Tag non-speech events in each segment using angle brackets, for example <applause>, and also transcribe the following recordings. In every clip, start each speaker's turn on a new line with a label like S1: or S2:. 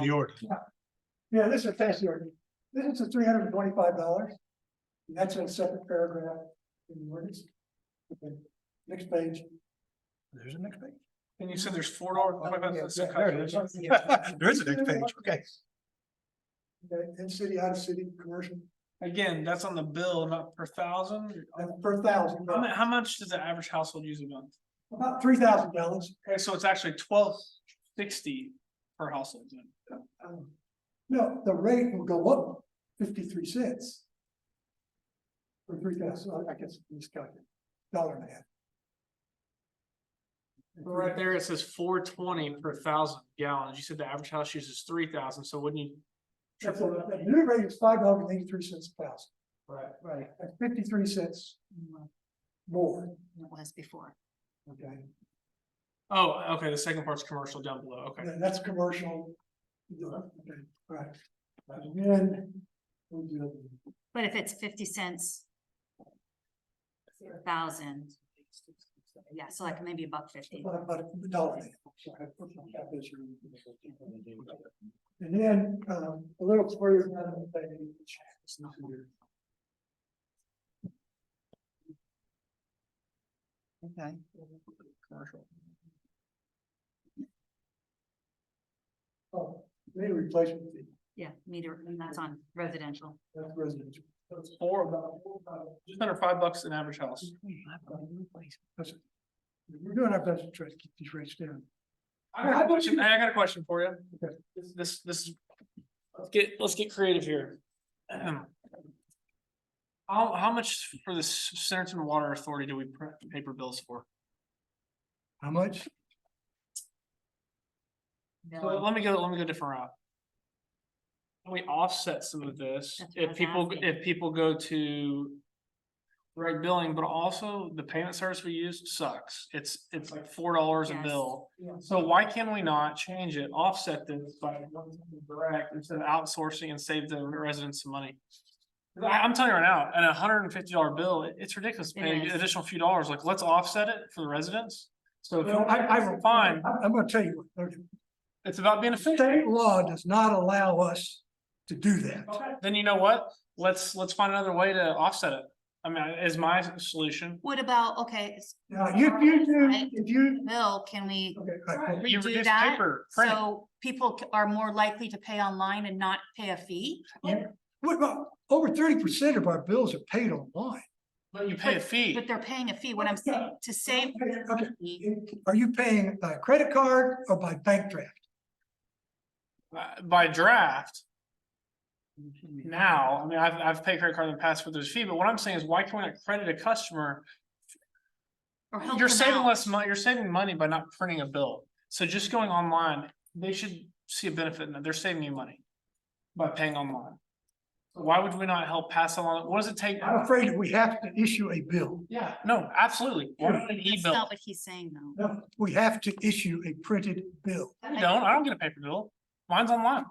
S1: the order.
S2: Yeah, this is fancy ordinance. This is three hundred and twenty-five dollars. And that's in a separate paragraph in the ordinance. Okay, Next page.
S1: There's a next page. And you said there's
S3: Oh,
S1: four dollars.
S2: Yeah, there it is. <laughs>
S1: There is a next page, <laughs> okay.
S2: Okay, in city, out of city, commercial,
S3: Again, that's on the bill, not per thousand.
S2: that's per thousand,
S3: How mu- how much does the average household use a month?
S2: about three thousand dollars.
S3: Okay, so it's actually twelve sixty per household. then.
S2: Um, No, the rate will go up fifty-three cents. Or three thousand, I guess, miscalculated, dollar and a half.
S3: Right there, it says four twenty per thousand gallons. You said the average house uses three thousand, so wouldn't you?
S2: That's a- The new rate is five dollars and eighty-three cents a thousand,
S3: Right.
S2: right, that's fifty-three cents
S4: Well,
S2: more,
S4: It was before.
S2: okay?
S3: Oh, okay, the second part's commercial down below, okay.
S2: And that's commercial. Yeah, okay, Right. And then. we'll do it.
S4: But if it's fifty cents. per Thousand. Yeah, so like maybe a buck fifty.
S2: About about a dollar. And then, um, a little further down on the page.
S5: Okay.
S2: Oh, Maybe replacement fee,
S4: Yeah, meter, and that's on residential.
S2: that's residential.
S3: It's four, about, just under five bucks an average house.
S2: We're doing our best to try to keep these rates down.
S3: I got a question, I got a question for you. This- This, this, let's get, let's get creative here. Ahem. How, how much for the S- Centerton Water Authority do we pr- paper bills for?
S2: How much?
S3: So
S4: Um,
S3: Let me go, let me go a different route. Can We offset some of this,
S4: That's what I
S3: if
S4: was
S3: people,
S4: asking.
S3: if people go to. Right billing, but also the payment service we use sucks, it's, it's like four dollars a
S4: Yes.
S3: bill. So why can we not change it, offset this by direct instead of outsourcing and save the residents some money? 'Cause I, am telling you right now, at a hundred and fifty dollar bill, it- it's ridiculous
S4: It
S3: paying
S4: is.
S3: additional few dollars, like, let's offset it for the residents. So if you- I, I find,
S2: I'm- I'm gonna tell you, what, okay,
S3: it's about being efficient.
S2: state law does not allow us to do that.
S3: Then you know what? Let's, let's find another way to offset it. I mean, is my solution.
S4: What about, okay, it's
S2: Now, if you do, if you,
S4: bill, can we,
S2: okay, all right,
S3: You
S4: Redo
S3: reduce
S4: that,
S3: paper, print.
S4: so people c- are more likely to pay online and not pay a fee?
S2: what about, over thirty percent of our bills are paid online.
S3: But you pay a fee.
S4: But they're paying a fee, what I'm saying, to save.
S2: Okay. Are you paying by credit card or by bank draft?
S3: Uh, By draft.
S4: Mm-hmm.
S3: Now, I mean, I've, I've paid credit card in the past for this fee, but what I'm saying is why can we not credit a customer?
S4: or help
S3: You're
S4: them
S3: saving
S4: out.
S3: less money, you're saving money by not printing a bill. So just going online, they should see a benefit in that. They're saving you money. By paying online. Why would we not help pass along? What does it take?
S2: I'm afraid that we have to issue a bill.
S3: Yeah, no, absolutely. Why not an
S4: That's
S3: e-bill?
S4: not what he's saying though.
S2: No, we have to issue a printed bill.
S3: I don't, I don't get a paper bill. Mine's online.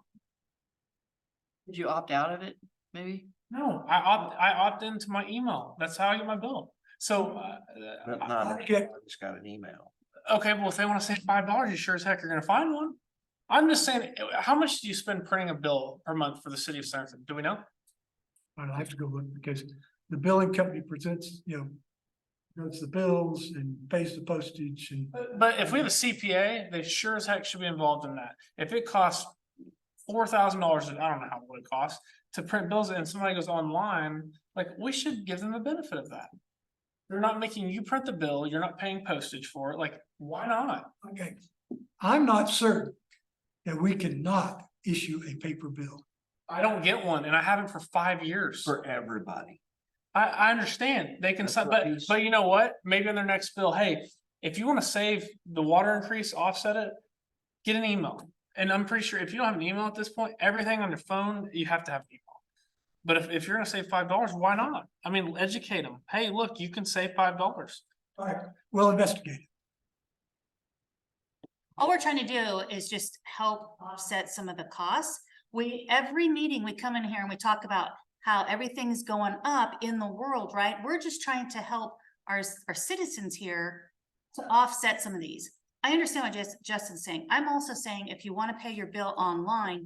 S5: Did you opt out of it, maybe?
S3: No, I opt, I opt into my email. That's how I get my bill. So, uh,
S6: No,
S3: I-
S6: no, I
S2: Okay.
S6: just got an email.
S3: okay, well, if they wanna save five dollars, you sure as heck are gonna find one. I'm just saying, uh, how much do you spend printing a bill per month for the city of Sanford? Do we know?
S2: And I have to go look because the billing company presents, you know, does the bills and pays the postage and
S3: But- But if we have a CPA, they sure as heck should be involved in that. If it costs four thousand dollars, I don't know how much it costs, to print bills and somebody goes online, like, we should give them the benefit of that. They're not making you print the bill, you're not paying postage for it, like, why not?
S2: Okay, I'm not certain that we cannot issue a paper bill.
S3: I don't get one and I haven't for five years.
S6: For everybody.
S3: I, I understand, they can,
S6: That's
S3: sub-
S6: what
S3: but,
S6: he's-
S3: but you know what, maybe on their next bill, hey, if you wanna save the water increase, offset it. Get an email, and I'm pretty sure if you don't have an email at this point, everything on your phone, you have to have an email. But if, if you're gonna save five dollars, why not? I mean, educate them, hey, look, you can save five dollars.
S2: All right, we'll investigate. it.
S4: All we're trying to do is just help offset some of the costs. We, every meeting, we come in here and we talk about how everything's going up in the world, right? We're just trying to help our, our citizens here to offset some of these. I understand what Jas- Justin's saying. I'm also saying if you want to pay your bill online,